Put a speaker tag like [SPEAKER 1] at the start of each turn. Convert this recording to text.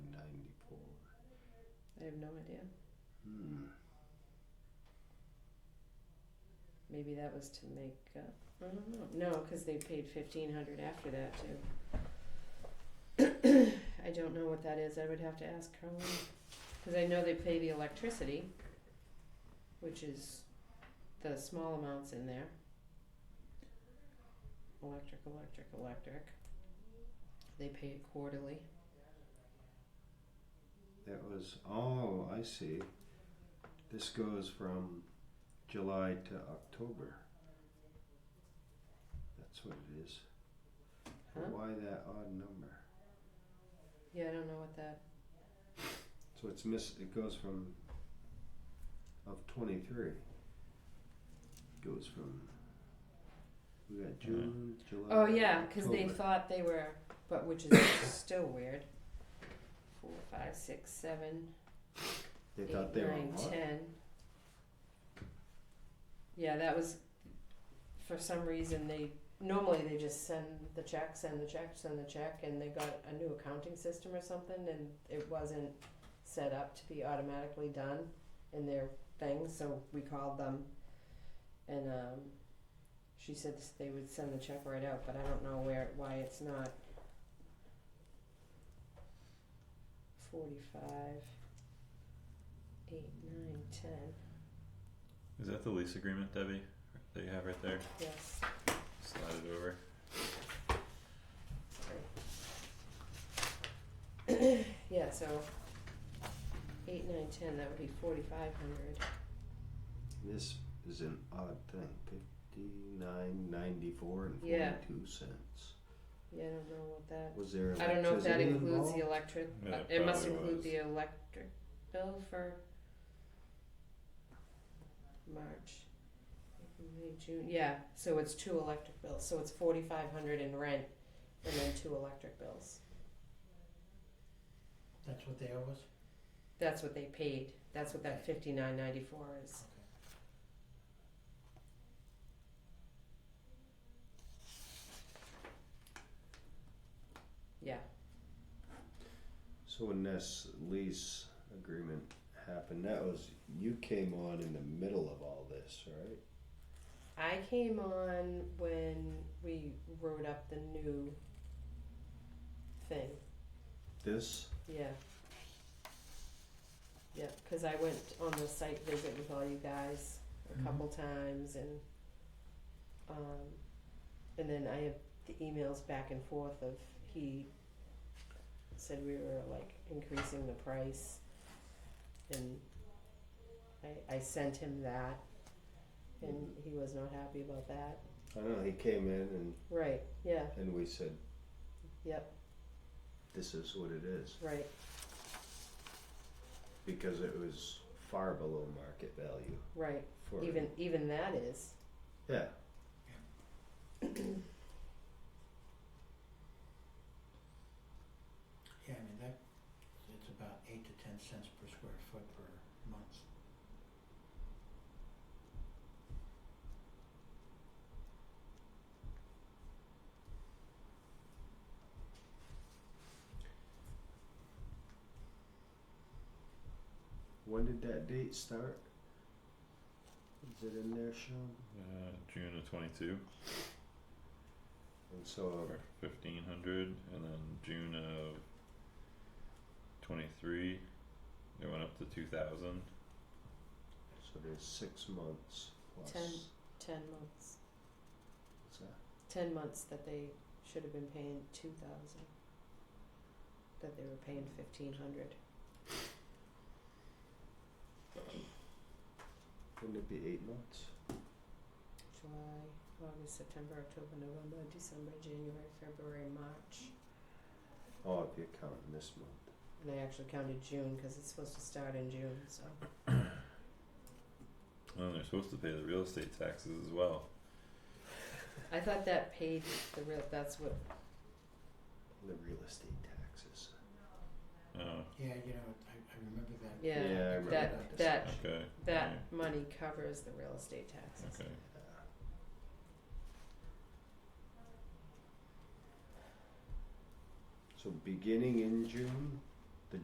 [SPEAKER 1] I have no idea.
[SPEAKER 2] Hmm.
[SPEAKER 1] Maybe that was to make up. I don't know. No, because they paid fifteen hundred after that too. I don't know what that is. I would have to ask Carlene. Because I know they pay the electricity, which is the small amounts in there. Electric, electric, electric. They pay it quarterly.
[SPEAKER 2] That was, oh, I see. This goes from July to October. That's what it is.
[SPEAKER 1] Huh?
[SPEAKER 2] Why that odd number?
[SPEAKER 1] Yeah, I don't know what that.
[SPEAKER 2] So it's miss, it goes from, of twenty-three. Goes from, we got June, July,
[SPEAKER 1] Oh yeah, because they
[SPEAKER 2] October.
[SPEAKER 1] thought they were, but which is still weird. Four, five, six, seven,
[SPEAKER 2] They
[SPEAKER 1] eight,
[SPEAKER 2] thought they were
[SPEAKER 1] nine,
[SPEAKER 2] what?
[SPEAKER 1] ten. Yeah, that was, for some reason, they, normally they just send the check, send the check, send the check, and they got a new accounting system or something, and it wasn't set up to be automatically done in their thing, so we called them. And, um, she said s- they would send the check right out, but I don't know where, why it's not. Forty-five eight, nine, ten.
[SPEAKER 3] Is that the lease agreement, Debbie, that you have right there?
[SPEAKER 1] Yes.
[SPEAKER 3] Slide it over.
[SPEAKER 1] Yeah, so eight, nine, ten, that would be forty-five hundred.
[SPEAKER 2] This is an odd thing, fifty-nine, ninety-four and
[SPEAKER 1] Yeah.
[SPEAKER 2] forty-two cents.
[SPEAKER 1] Yeah, I don't know what that,
[SPEAKER 2] Was there
[SPEAKER 1] I don't know if that
[SPEAKER 2] electricity
[SPEAKER 1] includes
[SPEAKER 2] involved?
[SPEAKER 1] the electric,
[SPEAKER 3] Yeah,
[SPEAKER 1] uh, it must
[SPEAKER 3] probably
[SPEAKER 1] include
[SPEAKER 3] was.
[SPEAKER 1] the electric bill for March, April, May, June, yeah, so it's two electric bills, so it's forty-five hundred in rent and then two electric bills.
[SPEAKER 4] That's what they owe us?
[SPEAKER 1] That's what they paid, that's what that fifty-nine ninety-four is. Yeah,
[SPEAKER 2] So when this lease agreement happened, that was you came on in the middle of all this, right?
[SPEAKER 1] I came on when we wrote up the new thing.
[SPEAKER 2] This
[SPEAKER 1] Yeah. Yeah, because I went on the site visit with all you guys a
[SPEAKER 3] Mhm.
[SPEAKER 1] couple times, and um, and then I have the emails back and forth of he said we were like increasing the price, and I I sent him that, and he was not happy about that.
[SPEAKER 2] I don't know, he came in and,
[SPEAKER 1] Right. Yeah.
[SPEAKER 2] and we said
[SPEAKER 1] Yep.
[SPEAKER 2] this is what it is
[SPEAKER 1] Right.
[SPEAKER 2] because it was far below market value
[SPEAKER 1] Right.
[SPEAKER 2] for
[SPEAKER 1] Even even that is.
[SPEAKER 2] Yeah.
[SPEAKER 4] Yeah, I mean, that, it's about eight to ten cents per square foot per month.
[SPEAKER 2] When did that date start? Is it in there, Sean?
[SPEAKER 3] Uh, June of twenty-two
[SPEAKER 2] And so um,
[SPEAKER 3] for fifteen hundred, and then June of twenty-three, it went up to two thousand.
[SPEAKER 2] so there's six months plus
[SPEAKER 1] Ten. Ten months.
[SPEAKER 2] what's that?
[SPEAKER 1] Ten months that they should have been paying two thousand. That they were paying fifteen hundred.
[SPEAKER 2] Wouldn't it be eight months?
[SPEAKER 1] July, August, September, October, November, December, January, February, March.
[SPEAKER 2] Oh, if you're counting this month.
[SPEAKER 1] And I actually counted June because it's supposed to start in June, so
[SPEAKER 3] And then they're supposed to pay the real estate taxes as well.
[SPEAKER 1] I thought that paid the real that's what
[SPEAKER 2] The real estate taxes.
[SPEAKER 3] Oh,
[SPEAKER 4] Yeah, you know, I, I remember that.
[SPEAKER 1] Yeah,
[SPEAKER 2] Yeah, I remember
[SPEAKER 1] that that
[SPEAKER 3] okay,
[SPEAKER 1] that
[SPEAKER 3] Yeah.
[SPEAKER 1] money covers the real estate taxes.
[SPEAKER 3] okay.
[SPEAKER 2] So beginning in June,